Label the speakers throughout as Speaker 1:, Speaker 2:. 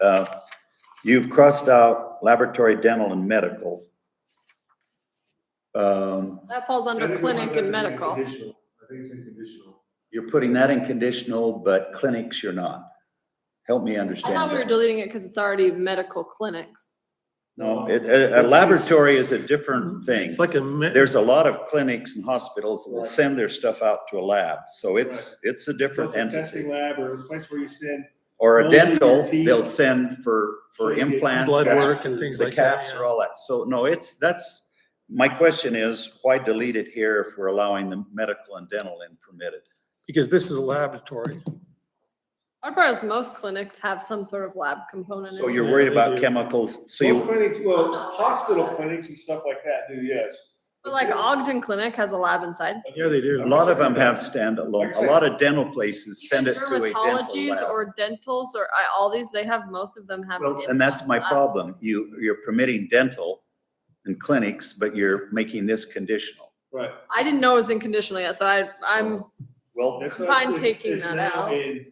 Speaker 1: Uh, You've crossed out laboratory, dental, and medical. Um,
Speaker 2: That falls
Speaker 3: I
Speaker 2: under
Speaker 3: think we want
Speaker 2: clinic
Speaker 3: that to
Speaker 2: and
Speaker 3: be in
Speaker 2: medical.
Speaker 3: conditional. I think it's in conditional.
Speaker 1: You're putting that in conditional, but clinics you're not. Help me
Speaker 2: I
Speaker 1: understand
Speaker 2: thought we were
Speaker 1: that.
Speaker 2: deleting it because it's already medical clinics.
Speaker 1: No, it- a, a laboratory is a different thing.
Speaker 4: It's like a. me-
Speaker 1: There's a lot of clinics and hospitals will send their stuff out to a lab, so it's, it's a different
Speaker 3: Filter Testing
Speaker 1: entity.
Speaker 3: lab or a place where you send,
Speaker 1: Or a
Speaker 3: Mold in your
Speaker 1: dental,
Speaker 3: teeth.
Speaker 1: they'll send for, for
Speaker 3: So you get
Speaker 1: implants.
Speaker 4: Blood
Speaker 1: that's-
Speaker 4: work and things
Speaker 1: The
Speaker 4: like that.
Speaker 1: caps
Speaker 4: yeah.
Speaker 1: or all that. So no, it's, that's, my question is, why delete it here if we're allowing the medical and dental in permitted?
Speaker 4: Because this is a laboratory.
Speaker 2: Our part is most clinics have some sort of lab component.
Speaker 1: So
Speaker 2: in it.
Speaker 1: you're
Speaker 4: Yeah,
Speaker 1: worried
Speaker 4: they
Speaker 1: about
Speaker 4: do.
Speaker 1: chemicals, so
Speaker 3: most
Speaker 1: you,
Speaker 3: clinics, well, hospital clinics and stuff like that do, yes.
Speaker 2: But like Ogden Clinic has a lab inside.
Speaker 4: Yeah, they do.
Speaker 1: a lot of them have standalone,
Speaker 3: Like I
Speaker 1: a
Speaker 3: said-
Speaker 1: lot of dental places send it
Speaker 2: Even
Speaker 1: to a dental
Speaker 2: Dermatologies
Speaker 1: lab.
Speaker 2: or dentals or I- all these, they have, most of them have.
Speaker 1: Well, And that's
Speaker 2: in-house
Speaker 1: my
Speaker 2: labs.
Speaker 1: problem. You, you're permitting dental and clinics, but you're making this conditional.
Speaker 3: Right.
Speaker 2: I didn't know it was in conditional yet, so I, I'm
Speaker 1: Well,
Speaker 3: That's
Speaker 2: I'm
Speaker 3: not-
Speaker 2: fine taking
Speaker 3: it's
Speaker 2: that
Speaker 3: now
Speaker 2: out.
Speaker 3: in-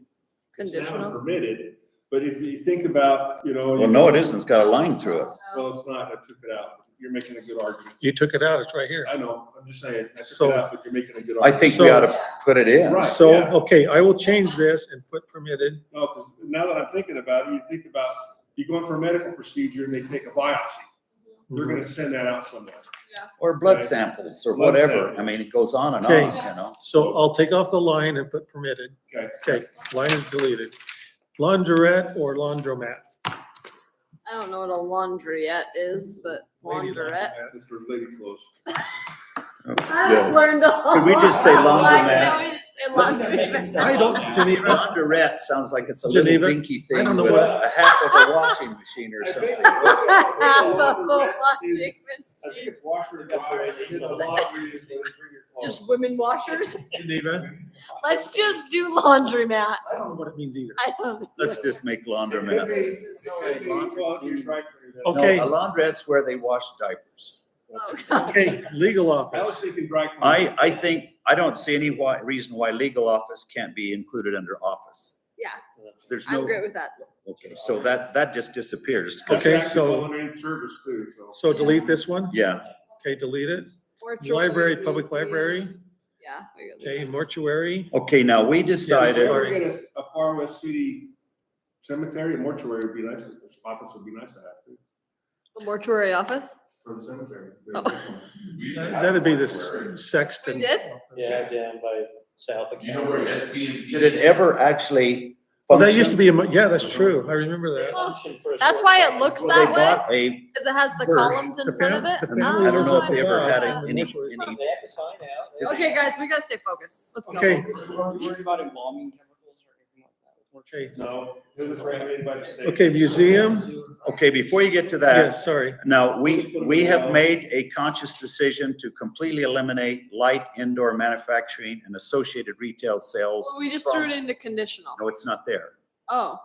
Speaker 3: it's now
Speaker 2: conditional.
Speaker 3: Permitted, but if you think about, you know.
Speaker 1: well,
Speaker 3: you-
Speaker 1: no, it isn't. It's got a line through it.
Speaker 2: Oh,
Speaker 3: Well, it's not, I took it out. You're making a good argument.
Speaker 4: You took it out, it's right here.
Speaker 3: I know, I'm just saying, I took
Speaker 4: So-
Speaker 3: it out, but you're making a good
Speaker 1: I
Speaker 3: argument.
Speaker 1: think we
Speaker 4: So-
Speaker 1: ought to put it in.
Speaker 3: Right.
Speaker 4: So,
Speaker 3: yeah.
Speaker 4: okay, I will change this and put permitted.
Speaker 3: No, because now that I'm thinking about it, you think about, you're going for a medical procedure and they take a biopsy. They're
Speaker 1: Mhm.
Speaker 3: gonna send that out somewhere.
Speaker 1: Or blood
Speaker 3: Right.
Speaker 1: samples or
Speaker 3: Blood
Speaker 1: whatever. I
Speaker 3: samples.
Speaker 1: mean, it goes on and on,
Speaker 4: Okay.
Speaker 1: you know?
Speaker 4: So I'll take off the line and put permitted.
Speaker 3: Okay.
Speaker 4: Okay, line is deleted. Laundrette or laundromat?
Speaker 2: I don't know what a laundryette is, but
Speaker 4: Lady
Speaker 2: laundrette.
Speaker 3: That's for lady clothes.
Speaker 2: I've learned a lot.
Speaker 1: Could we just say laundromat?
Speaker 2: Why can't
Speaker 1: What's
Speaker 2: we
Speaker 1: that
Speaker 2: just say laundromat?
Speaker 4: I don't, Geneva,
Speaker 1: Laundrette sounds like it's a little
Speaker 4: Geneva,
Speaker 1: dinky
Speaker 4: I
Speaker 1: thing
Speaker 4: don't know
Speaker 1: with
Speaker 4: what-
Speaker 1: a half of a washing machine or
Speaker 3: I
Speaker 1: something.
Speaker 3: think- I think a
Speaker 2: But
Speaker 3: laundrette is-
Speaker 2: washing
Speaker 3: I think
Speaker 2: machine,
Speaker 3: it's washer and dryer, and then the laundry is where you bring your clothes.
Speaker 2: Just women washers.
Speaker 4: Geneva.
Speaker 2: Let's just do laundromat.
Speaker 4: I don't know what it means either.
Speaker 2: I don't.
Speaker 1: Let's just make
Speaker 3: It could
Speaker 1: laundromat.
Speaker 3: be- it could be, well, you're right, you're right.
Speaker 1: No,
Speaker 4: Okay.
Speaker 1: A laundrette's where they wash diapers.
Speaker 2: Oh, God.
Speaker 4: Okay, legal
Speaker 3: I was
Speaker 4: office.
Speaker 3: thinking dry. cleaning.
Speaker 1: I, I think, I don't see any why, reason why legal office can't be included under office.
Speaker 2: Yeah,
Speaker 1: There's
Speaker 2: I'm
Speaker 1: no,
Speaker 2: great with that.
Speaker 1: okay, so that, that just disappears. 'cause-
Speaker 4: Okay,
Speaker 3: Contractors
Speaker 4: so-
Speaker 3: all underneath service too, so.
Speaker 4: So delete this one.
Speaker 1: Yeah,
Speaker 4: Okay, delete it.
Speaker 2: Or
Speaker 4: Library,
Speaker 2: children
Speaker 4: public
Speaker 2: needs, yeah.
Speaker 4: library.
Speaker 2: Yeah. we could do
Speaker 4: Okay,
Speaker 2: that.
Speaker 4: mortuary.
Speaker 1: okay, now we
Speaker 3: If we
Speaker 1: decided,
Speaker 4: sorry.
Speaker 3: ever get a, s- a far west city cemetery, mortuary would be nice, office would be nice to have too,
Speaker 2: The Mortuary office.
Speaker 3: for the cemetery.
Speaker 2: Oh.
Speaker 4: That'd be this sexton.
Speaker 2: We did?
Speaker 4: office.
Speaker 5: Yeah, down by South.
Speaker 6: Do you know where SBMG?
Speaker 1: did it ever actually?
Speaker 4: Well, that used to
Speaker 1: function?
Speaker 4: be, a mo- yeah, that's true. I remember that.
Speaker 2: That's why it looks
Speaker 1: Well,
Speaker 2: that
Speaker 1: they
Speaker 2: way,
Speaker 1: bought a,
Speaker 2: because it has the
Speaker 1: Birth.
Speaker 2: columns in
Speaker 4: The
Speaker 2: front of
Speaker 4: family-
Speaker 2: it.
Speaker 4: the family
Speaker 1: I don't know
Speaker 2: Oh,
Speaker 1: if they ever
Speaker 2: I
Speaker 1: had
Speaker 2: didn't
Speaker 4: a-
Speaker 2: know
Speaker 1: any,
Speaker 4: Mortuary.
Speaker 1: any,
Speaker 5: They have the sign
Speaker 2: that.
Speaker 5: out.
Speaker 2: Okay, guys, we gotta stay focused. Let's go.
Speaker 4: Okay.
Speaker 5: Worried about embalming chemicals or anything like that with mortuary.
Speaker 4: Okay.
Speaker 3: No, it was regulated by the state.
Speaker 4: Okay, museum.
Speaker 1: okay, before you get to that,
Speaker 4: Yes, sorry.
Speaker 1: Now, we, we have made a conscious decision to completely eliminate light indoor manufacturing and associated retail sales.
Speaker 2: Well, We just threw it
Speaker 1: from-
Speaker 2: into conditional.
Speaker 1: No, it's not there.
Speaker 2: Oh.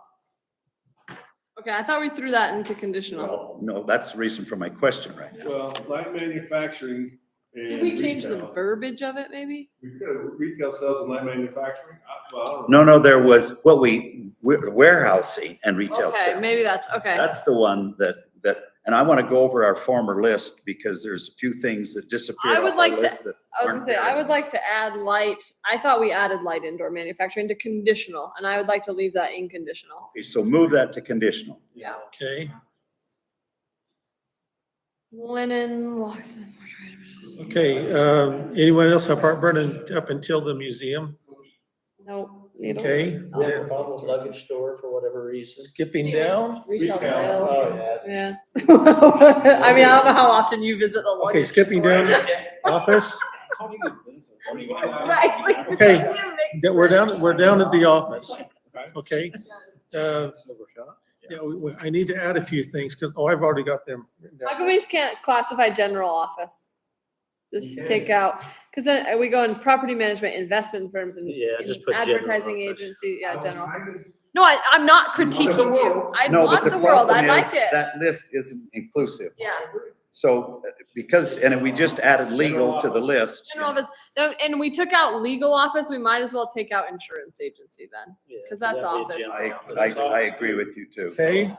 Speaker 2: Okay, I thought we threw that into conditional.
Speaker 1: Well, no, that's the reason for my question right now.
Speaker 3: Well, light manufacturing and.
Speaker 2: Did we change the
Speaker 3: retail.
Speaker 2: verbiage of it, maybe?
Speaker 3: We could, retail sales and light manufacturing, I, well, I don't know.
Speaker 1: No, no, there was what we, warehousing and retail
Speaker 2: Okay,
Speaker 1: sales.
Speaker 2: maybe that's, okay.
Speaker 1: That's the one that, that, and I want to go over our former list because there's a few things that disappeared
Speaker 2: I
Speaker 1: off
Speaker 2: would
Speaker 1: our
Speaker 2: like to-
Speaker 1: list that-
Speaker 2: I was gonna say, I would like to add light, I thought we added light indoor manufacturing to conditional, and I would like to leave that in conditional.
Speaker 1: Okay, so move that to conditional.
Speaker 4: Okay,
Speaker 2: Linen, locksmith.
Speaker 4: okay. Um, anyone else have heartburn and- up until the museum?
Speaker 2: Nope. needle.
Speaker 4: Okay.
Speaker 5: We have a
Speaker 4: then
Speaker 5: problem with luggage store for whatever reason.
Speaker 4: Skipping down.
Speaker 2: Retail
Speaker 3: Retail.
Speaker 2: sales,
Speaker 5: Oh, yeah.
Speaker 2: yeah. I mean, I don't know how often you visit the
Speaker 4: Okay,
Speaker 2: luggage
Speaker 4: skipping
Speaker 2: store.
Speaker 4: down. Office.
Speaker 2: Right. like,
Speaker 4: Okay,
Speaker 2: doesn't even make
Speaker 4: Yeah, We're
Speaker 2: sense.
Speaker 4: down, we're down at the office. Okay. Uh, yeah, we- we- I need to add a few things because, oh, I've already got them. written down.
Speaker 2: How come we just can't classify general office? Just
Speaker 3: You can.
Speaker 2: take out, because then uh, we go in property management, investment firms and
Speaker 5: Yeah,
Speaker 2: and
Speaker 5: just put general
Speaker 2: advertising
Speaker 5: office.
Speaker 2: agency,
Speaker 3: I
Speaker 2: yeah,
Speaker 3: was
Speaker 2: general.
Speaker 3: trying to-
Speaker 2: No, I, I'm not
Speaker 3: You want the
Speaker 2: critiquing you.
Speaker 3: world.
Speaker 2: I
Speaker 1: No, but
Speaker 2: want the world.
Speaker 1: problem
Speaker 2: I like
Speaker 1: is
Speaker 2: it.
Speaker 1: That list isn't inclusive.
Speaker 2: Yeah.
Speaker 1: So uh, because, and we just added legal to the list.
Speaker 2: General office, no, and we took out legal office, we might as well take out insurance agency then.
Speaker 5: Yeah,
Speaker 2: Because that's
Speaker 5: that'd be a
Speaker 2: office.
Speaker 5: general
Speaker 1: I,
Speaker 5: office.
Speaker 1: I, I agree with you too.
Speaker 4: Okay.